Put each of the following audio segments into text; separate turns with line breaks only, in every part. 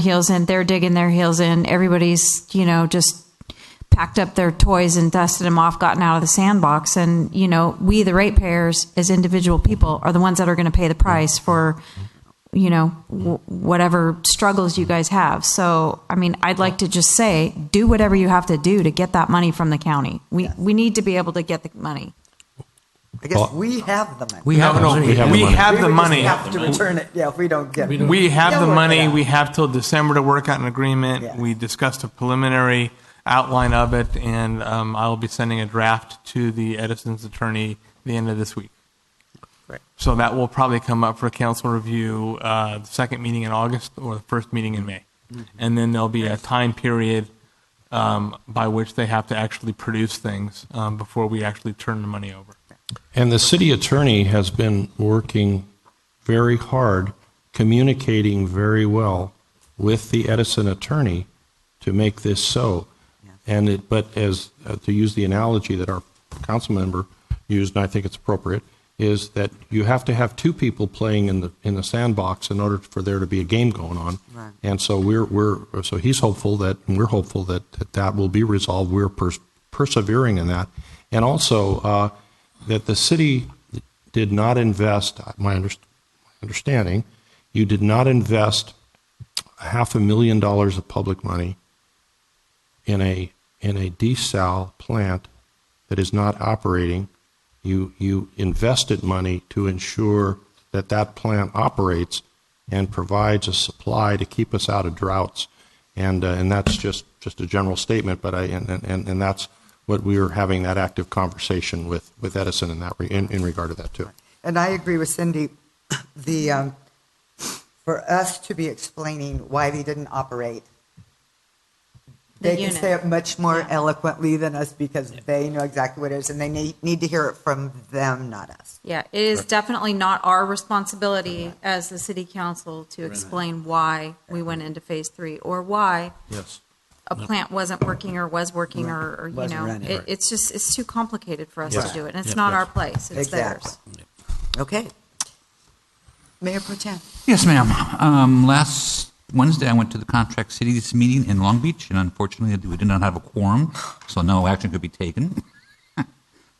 heels in. They're digging their heels in. Everybody's, you know, just packed up their toys and dusted them off, gotten out of the sandbox. And, you know, we, the ratepayers, as individual people, are the ones that are going to pay the price for, you know, w- whatever struggles you guys have. So, I mean, I'd like to just say do whatever you have to do to get that money from the county. We, we need to be able to get the money.
I guess
Well-
we have the money.
We
No,
have the
no,
money.
we have the money.
We
have
would just have to return it, yeah, if we don't get it.
We have
They'll
the
work it
money.
out.
We have till December to work out an
Yeah.
agreement. We discussed a preliminary outline of it, and um, I'll be sending a draft to the Edison's attorney the end of this week.
Great.
So that will probably come up for council review, uh, the second meeting in August or the first meeting in May.
Mm-hmm.
And then there'll be a time period um, by which they have to actually produce things um, before we actually turn the money over.
And the city attorney has been working very hard, communicating very well with the Edison attorney to make this so. And it, but as, uh, to use the analogy that our council member used, and I think it's appropriate, is that you have to have two people playing in the, in the sandbox in order for there to be a game going on.
Right.
And so we're, we're, so he's hopeful that, and we're hopeful that that, that will be resolved. We're pers- persevering in that. And also, uh, that the city did not invest, my underst- my understanding, you did not invest a half a million dollars of public money in a, in a desal plant that is not operating. You, you invested money to ensure that that plant operates and provides a supply to keep us out of droughts. And, uh, and that's just, just a general statement, but I, and, and- and, and that's what we were having that active conversation with, with Edison in that, re- in, in regard to that too.
And I agree with Cindy, the, um, for us to be explaining why they didn't operate,
The
they can say
unit.
it much more
Yeah.
eloquently than us because they know exactly what it is, and they need, need to hear it from them, not us.
Yeah, it is definitely not our responsibility as the city council to explain why we went into phase three or why
Yes.
a plant wasn't working or was working or, or you
Wasn't
know,
running.
it, it's just, it's too complicated for us to
Yes.
do it. And it's not our place, it's
Exactly.
theirs.
Okay. Mayor Pro Tem.
Yes, ma'am. Um, last Wednesday, I went to the Contract Cities meeting in Long Beach, and unfortunately, we did not have a quorum, so no action could be taken.
They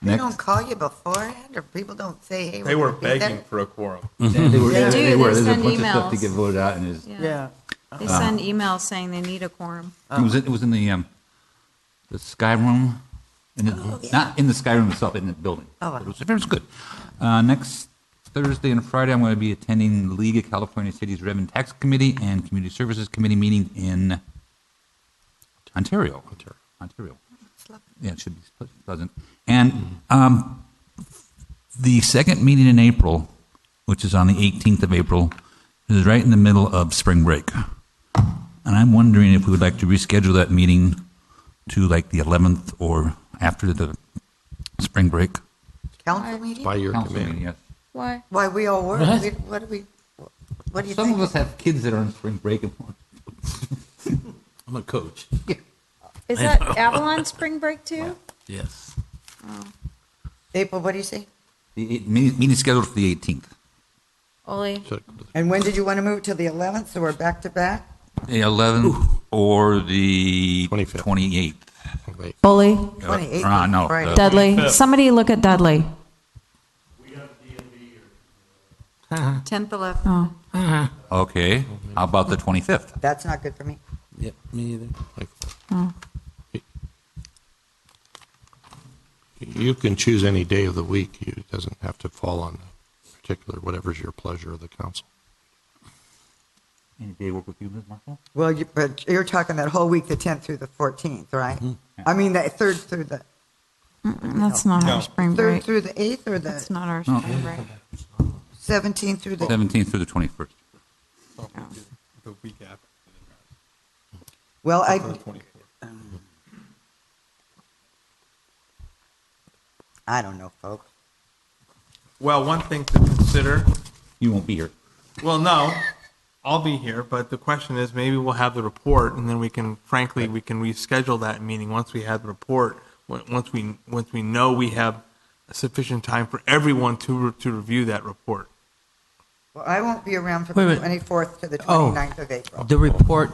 Next.
don't call you beforehand, or people don't say, hey, we're gonna be there?
for a quorum.
They were,
Yeah.
They do, they
There's a
send
bunch of stuff to
emails.
get voted out, and it's-
Yeah.
They
Uh-huh.
send emails saying they need a quorum.
it was, in- it was in the, um, the Sky Room, in the- not in the Sky Room itself, in the building.
Oh, wow.
It was, it was good. Uh, next Thursday and Friday, I'm going to be attending the League of California Cities Revenue Tax Committee and Community Services Committee meeting in Ontario. Ontario. Ontario. Yeah, it should be ple- pleasant. And um, the second meeting in April, which is on the 18th of April, is right in the middle of spring break. And I'm wondering if we would like to reschedule that meeting to like the 11th or after the spring break.
Council meeting?
By your
council meeting,
command.
yes.
Why?
Why we all work? We- What do we, what do you
Some of us
think?
have kids that are on spring break. and
I'm a coach.
Is that Avalon spring break too?
Yes.
April, what do you say?
The eight- meeting meeting is scheduled for the 18th.
Ollie?
And when did you want to move it to the 11th, so we're back to back?
The 11th or the
25th.
28th.
Wait.
Bully?
Uh,
28th
uh,
is
no,
Friday.
the-
Dudley? Somebody look at Dudley.
Tenth, eleventh.
Oh,
Okay, how about the 25th?
That's not good for me.
Yep, me either.
You can choose any day of the week. You- It doesn't have to fall on a particular, whatever's your pleasure of the council.
Any day work with you, Ms. Marshall?
Well, you, but you're talking that whole week, the tenth through the fourteenth, right? I mean, the third through the,
that's not our spring
third
break.
through the eighth, or
That's
the
not our spring break.
seventeenth through the,
17th through the 21st.
The week after.
well, I, I don't know, folks.
Well, one thing to consider,
You won't be here.
well, no, I'll be here, but the question is, maybe we'll have the report, and then we can, frankly, we can reschedule that meeting once we have the report, on- once we, once we know we have sufficient time for everyone to, re- to review that report.
Well, I won't be around from
Wait a
the
minute.
twenty-fourth to the
Oh.
twenty-ninth of April.
The report